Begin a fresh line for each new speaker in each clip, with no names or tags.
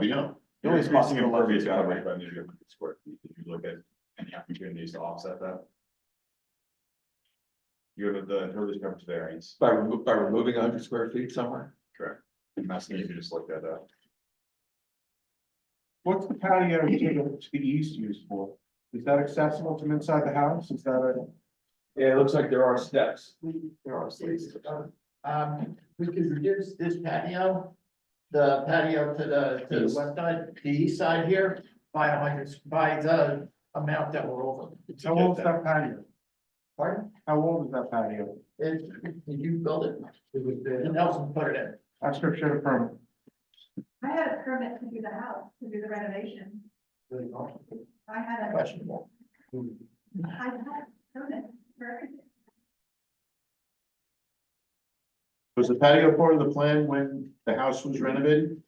We know.
The
You're
only
using
possible
impervious
leverage to cover
coverage
it.
by measuring the square feet. Did you look at any opportunities to offset that? You have the impervious coverage variance,
By remo- by removing hundred square feet somewhere?
correct? And that's, you can just look that up.
What's the patio to the, to the east used for? Is that accessible from inside the house? Is that a?
Yeah, it looks like there are steps.
we,
There are
spaces. um, we could reduce this patio. The patio to the, to the west side, the east side here, by a hundred, by the amount that we're over.
How old is that patio?
Pardon?
How old is that patio?
It, did you build it? It was there. And Nelson put it in.
I scripture should have permit.
I had a permit to do the house, to do the renovation.
Really
I had a,
Questionable.
I had a permit for everything.
Was the patio part of the plan when the house was renovated?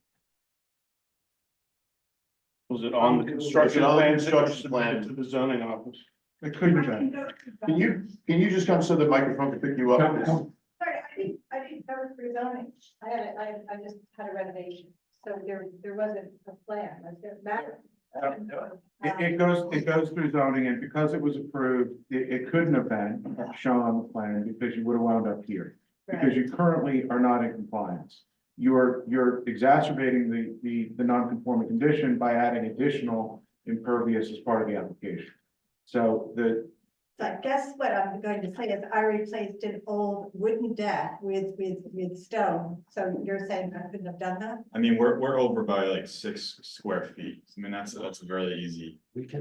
Was it on the
Was it
construction
on the
plans that were
construction plan?
submitted to the zoning office?
It couldn't have
I can
been.
go to
Can
zoning.
you, can you just come so the microphone can pick you up?
Sorry, I think, I think that was for zoning.
I had, a- I, I just had a renovation, so there, there wasn't a plan, was there, Matt?
It, it goes, it goes through zoning and because it was approved, it, it couldn't have been shown on the plan because you would have wound up here. because you currently are not in compliance. You're, you're exacerbating the, the, the non-conforming condition by adding additional impervious as part of the application. So the,
So I guess what I'm going to say is I replaced an old wooden deck with, with, with stone, so you're saying I couldn't have done that?
I mean, we're, we're over by like six square feet. I mean, that's, that's a very easy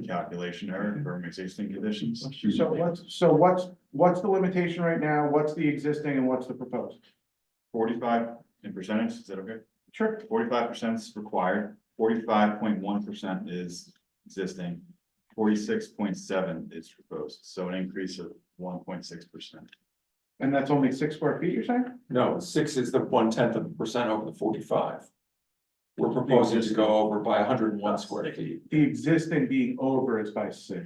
calculation error for existing conditions.
so what's, so what's, what's the limitation right now? What's the existing and what's the proposed?
Forty-five in percentage, is that okay?
Sure.
Forty-five percent is required, forty-five point one percent is existing, forty-six point seven is proposed, so an increase of one point six percent.
And that's only six square feet, you're saying?
No, six is the one tenth of a percent over the forty-five. We're proposing to go over by hundred and one square feet.
The existing being over is by six.
Mm-hmm.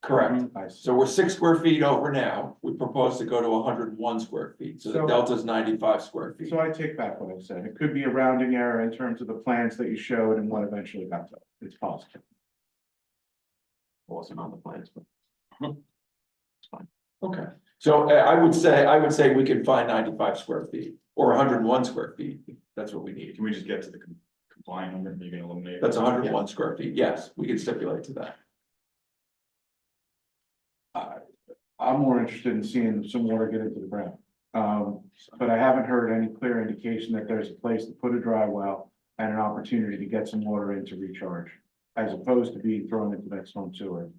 Correct.
By six.
So we're six square feet over now. We propose to go to hundred and one square feet, so the
So-
delta is ninety-five square feet.
So I take back what I said. It could be a rounding error in terms of the plans that you showed and what eventually got to. It's possible.
Wasn't on the plans, but. Okay, so uh, I would say, I would say we can find ninety-five square feet or hundred and one square feet. That's what we need.
Can we just get to the com- compliant number, you can eliminate?
That's hundred and one square feet. Yes, we can stipulate to that.
I'm more interested in seeing some water get into the ground. Um, but I haven't heard any clear indication that there's a place to put a dry well and an opportunity to get some water in to recharge, as opposed to being thrown into that storm sewer.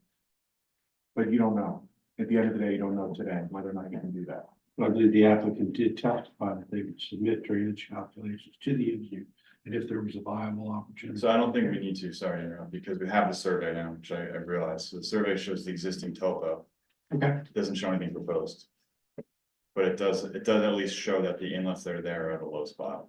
But you don't know. At the end of the day, you don't know today whether or not you can do that.
I believe the applicant did testify that they would submit drainage calculations to the engineer, and if there was a viable opportunity.
So I don't think we need to, sorry, to interrupt, because we have the survey now, which I, I realize, so the survey shows the existing topo.
Okay.
It Doesn't show anything proposed. But it does, it does at least show that the inlets that are there are at a low spot.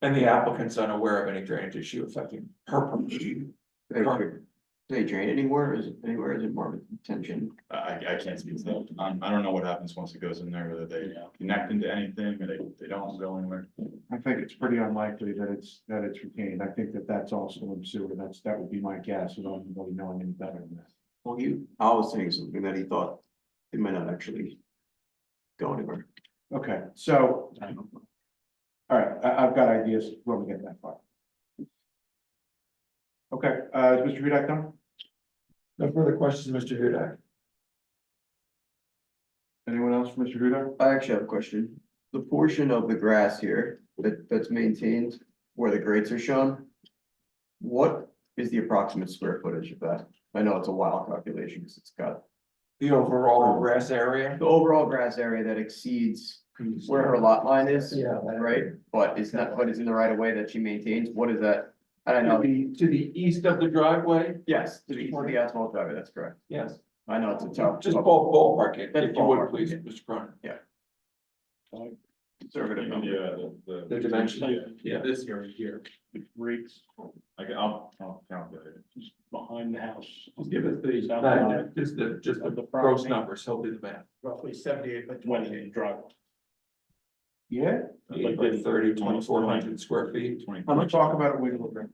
And the applicant's unaware of any drainage issue affecting her property. Perfect.
They drain anywhere, is it anywhere, is it more of a tension?
I, I I can't speak to that. Um, I don't know what happens once it goes in there, whether they connect into anything or they, they don't go anywhere.
I think it's pretty unlikely that it's, that it's retained. I think that that's all storm sewer. That's, that would be my guess without anybody knowing any better than that.
Well, you, I was saying something that he thought it might not actually go anywhere.
Okay, so, all right, I, I've got ideas when we get that far. Okay, uh, is Mr. Hudak done?
No further questions, Mr. Hudak?
Anyone else for Mr. Hudak?
I actually have a question. The portion of the grass here that, that's maintained where the grates are shown. What is the approximate square footage of that? I know it's a wild calculation because it's got
The overall grass area?
the overall grass area that exceeds where her lot line is,
Yeah.
right? But is not, but is in the right of way that she maintains. What is that? I don't
To
know.
the, to the east of the driveway?
Yes, to be for the asphalt driver, that's correct.
Yes.
I know it's a tough.
Just ball, ballpark it,
That's
if you would,
ballpark,
please,
yeah.
Mr. Cronin.
Conservative number.
uh, the.
The dimension, yeah.
This area here,
Breaks. I can, I'll, I'll calculate it.
behind the house.
Just give us the,
South side
just the, just
of
the
the
gross
property.
numbers, he'll do the math.
Roughly seventy-eight by
When you
twenty-eight.
drive.
Yeah,
like 30, 2,400 square feet.
Twenty.
Let's talk about it when we look at it.